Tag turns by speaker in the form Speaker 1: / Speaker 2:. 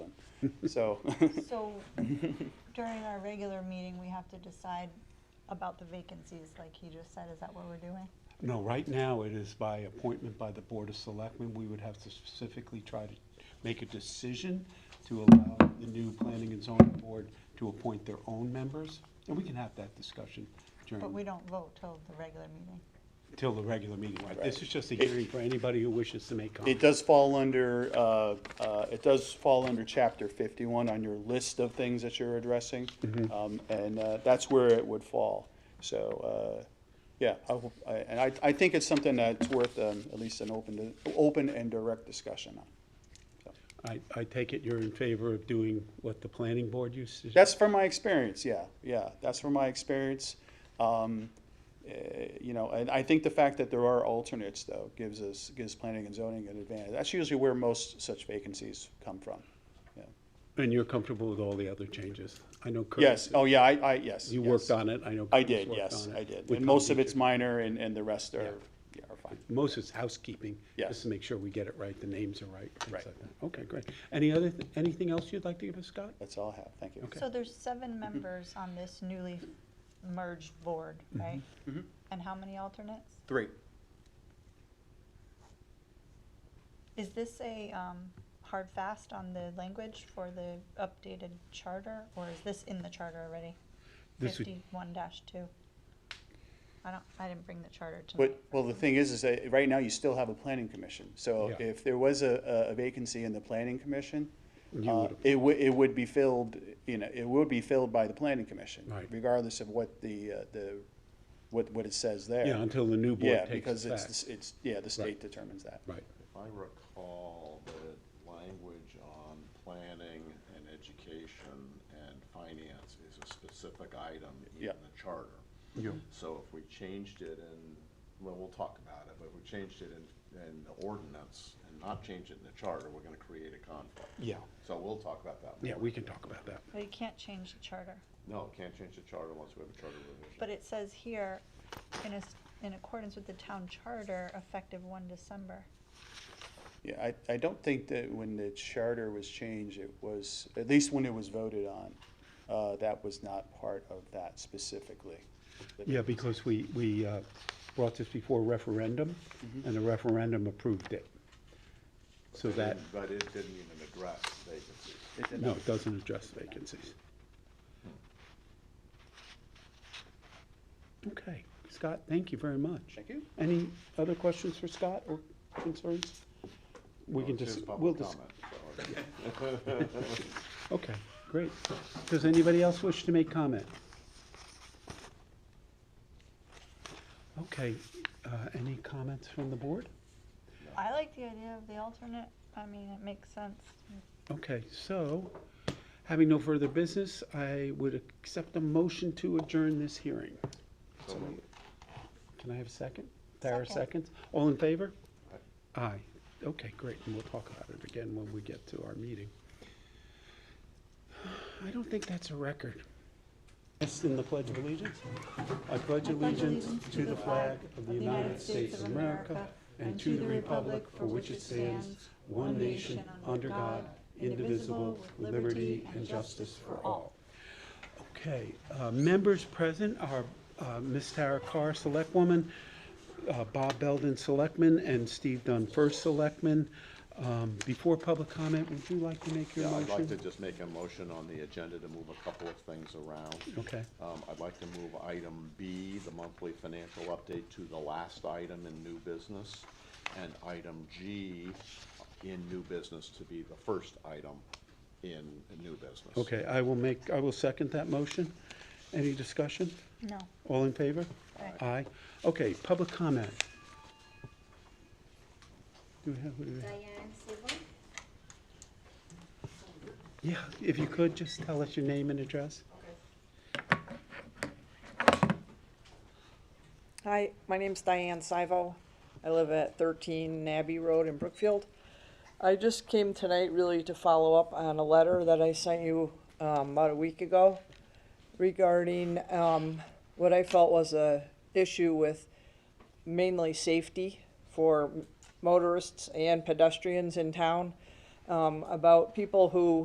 Speaker 1: So,
Speaker 2: So during our regular meeting, we have to decide about the vacancies, like he just said, is that what we're doing?
Speaker 1: no, right now it is by appointment by the Board of Selectmen. We would have to specifically try to make a decision to allow the new Planning and Zoning Board to appoint their own members. And we can have that discussion
Speaker 2: But we
Speaker 1: during,
Speaker 2: don't vote till the regular meeting.
Speaker 1: till the regular meeting, right? This
Speaker 3: Right.
Speaker 1: is just a hearing for anybody who wishes to make
Speaker 3: It
Speaker 1: comments.
Speaker 3: does fall under, uh, uh, it does fall under chapter fifty-one on your list of things that you're addressing. Um, and, uh, that's where it would fall. So, uh, yeah, I, hope- I- and I, I think it's something that's worth, um, at least an open, open and direct discussion on.
Speaker 1: I, I take it you're in favor of doing what the Planning Board used to?
Speaker 3: That's from my experience, yeah, yeah, that's from my experience. Um, eh, You know, and I think the fact that there are alternates, though, gives us, gives planning and zoning an advantage. That's usually where most such vacancies come from, yeah.
Speaker 1: And you're comfortable with all the other changes? I know Kurt.
Speaker 3: Yes, oh, yeah, I, I, yes.
Speaker 1: You worked
Speaker 3: yes.
Speaker 1: on it, I know.
Speaker 3: I
Speaker 1: Curtis
Speaker 3: did,
Speaker 1: worked
Speaker 3: yes,
Speaker 1: on it.
Speaker 3: I did.
Speaker 1: We
Speaker 3: And most of
Speaker 1: probably
Speaker 3: it's
Speaker 1: should-
Speaker 3: minor and, and the rest
Speaker 1: Yeah.
Speaker 3: are, yeah, are fine.
Speaker 1: Most is housekeeping.
Speaker 3: Yeah.
Speaker 1: Just to make sure we get it right, the names are right, things
Speaker 3: Right.
Speaker 1: like that. Okay, great. Any other, th- anything else you'd like to give us, Scott?
Speaker 3: That's all I have, thank you.
Speaker 1: Okay.
Speaker 2: So there's seven members on this newly merged board,
Speaker 1: Mm-hmm.
Speaker 2: right?
Speaker 3: Mhm.
Speaker 2: And how many alternates?
Speaker 3: Three.
Speaker 2: Is this a um, hard fast on the language for the updated charter, or is this in the charter already?
Speaker 1: This would-
Speaker 2: Fifty-one dash two. I don't, I didn't bring the charter tonight.
Speaker 3: But, well, the thing is, is that right now you still have a planning commission. So
Speaker 1: Yeah.
Speaker 3: if there was a, a vacancy in the planning commission,
Speaker 1: You
Speaker 3: uh,
Speaker 1: would-
Speaker 3: it would, it would be filled, you know, it would be filled by the planning commission.
Speaker 1: Right.
Speaker 3: Regardless of what the, uh, the, what, what it says there.
Speaker 1: Yeah, until the new
Speaker 3: Yeah,
Speaker 1: board
Speaker 3: because it's,
Speaker 1: takes effect.
Speaker 3: the s- it's, yeah, the
Speaker 1: Right.
Speaker 3: state determines that.
Speaker 1: Right.
Speaker 4: If I recall, the language on planning and education and finance is a specific item in
Speaker 3: Yeah.
Speaker 4: the charter.
Speaker 1: Yeah.
Speaker 4: So if we changed it in, well, we'll talk about it, but if we changed it in, in the ordinance and not change it in the charter, we're gonna create a conflict.
Speaker 1: Yeah,
Speaker 4: So we'll talk about that.
Speaker 1: yeah,
Speaker 4: more.
Speaker 1: we can talk about that.
Speaker 2: But you can't change the charter.
Speaker 4: No, can't change the charter once we have a charter revision.
Speaker 2: But it says here, in, as- in accordance with the town charter, effective one December.
Speaker 3: Yeah, I, I don't think that when the charter was changed, it was, at least when it was voted on, uh, that was not part of that specifically.
Speaker 1: Yeah, because we, we uh, brought this before referendum,
Speaker 3: Mm-hmm.
Speaker 1: and the referendum approved it. So
Speaker 4: It
Speaker 1: that,
Speaker 4: didn't- But it didn't even address vacancies.
Speaker 3: It did
Speaker 1: no,
Speaker 3: not.
Speaker 1: it doesn't address vacancies. Okay, Scott, thank you very much.
Speaker 3: Thank you.
Speaker 1: Any other questions for Scott or concerns? We
Speaker 4: Well,
Speaker 1: can
Speaker 4: it's
Speaker 1: just,
Speaker 4: his
Speaker 1: we'll
Speaker 4: public
Speaker 1: just,
Speaker 4: comment, so-
Speaker 1: okay, great. Does anybody else wish to make comment? Okay, uh, any comments from the board?
Speaker 2: I like the idea of the alternate, I mean, it makes sense.
Speaker 1: Okay, so, having no further business, I would accept a motion to adjourn this hearing.
Speaker 4: So moved.
Speaker 1: Can I have a second? Tara
Speaker 2: Second.
Speaker 1: seconds? All in favor? Aye. Okay, great, and we'll talk about it again when we get to our meeting. I don't think that's a record. It's in the Pledge of Allegiance. I pledge allegiance to the flag of the United States of America and to the republic for which it stands, one nation, under God, indivisible, with liberty and justice for all. Okay, uh, members present are uh, Ms. Tara Carr, Selectwoman, uh, Bob Belden, Selectman, and Steve Dunn, First Selectman. Um, Before public comment, would you like to make your
Speaker 4: Yeah, I'd like to
Speaker 1: motion?
Speaker 4: just make a motion on the agenda to move a couple of things around.
Speaker 1: Okay,
Speaker 4: Um, I'd like to move item B, the monthly financial update, to the last item in new business, and item G in new business to be the first item in new business.
Speaker 1: okay, I will make, I will second that motion. Any discussion?
Speaker 2: No.
Speaker 1: All in favor?
Speaker 2: Aye.
Speaker 1: Aye. Okay, public comment. Do we have, what do we have?
Speaker 5: Diane Silva,
Speaker 1: Yeah, if you could, just tell us your name and address.
Speaker 6: Hi, my name's Diane Sivo. I live at 13 Abbey Road in Brookfield. I just came tonight really to follow up on a letter that I sent you um, about a week ago regarding um, what I felt was a issue with mainly safety for motorists and pedestrians in town, um, about people who